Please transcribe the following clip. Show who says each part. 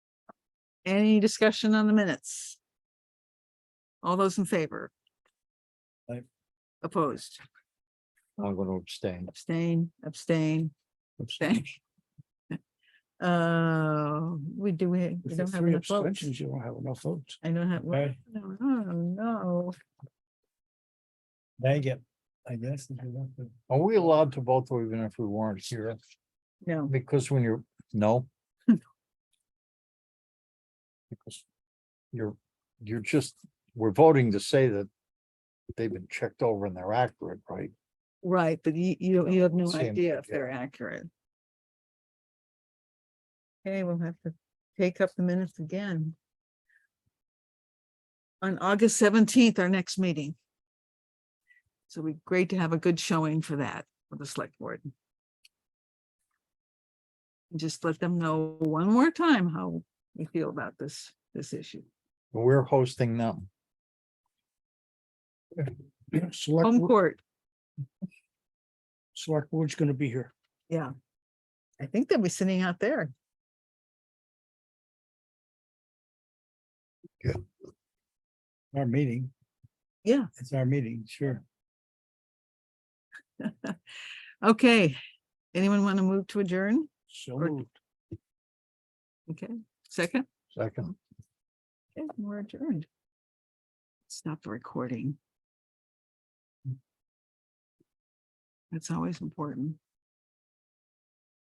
Speaker 1: Any discussion on the minutes? All those in favor?
Speaker 2: Aye.
Speaker 1: Opposed,
Speaker 2: I'm gonna abstain.
Speaker 1: abstain, abstain, abstain. Uh, we do, we, we
Speaker 2: With the
Speaker 1: don't have
Speaker 2: three
Speaker 1: enough votes.
Speaker 2: abstentions, you don't have enough votes.
Speaker 1: I don't have,
Speaker 2: Okay.
Speaker 1: no, no, no.
Speaker 2: Dang it, I guess. if you want to- Are we allowed to vote though, even if we weren't here?
Speaker 1: no.
Speaker 2: Because when you're, no? Because you're, you're just, we're voting to say that they've been checked over and they're accurate, right?
Speaker 1: Right, but you, you, don't- you have no
Speaker 2: Same,
Speaker 1: idea if
Speaker 2: yeah.
Speaker 1: they're accurate. Okay, we'll have to take up the minutes again. On August seventeenth, our next meeting. So it'd be great to have a good showing for that, for the select board. Just let them know one more time how we feel about this, this issue.
Speaker 2: We're hosting them.
Speaker 1: Home
Speaker 2: Select,
Speaker 1: court,
Speaker 2: select board's gonna be here.
Speaker 1: yeah. I think they'll be sitting out there.
Speaker 2: Our meeting.
Speaker 1: Yeah.
Speaker 2: It's our meeting, sure.
Speaker 1: Okay, anyone want to move to adjourn?
Speaker 2: So
Speaker 1: Or- Okay, second,
Speaker 2: Second.
Speaker 1: Okay, we're adjourned. Stop the recording. That's always important.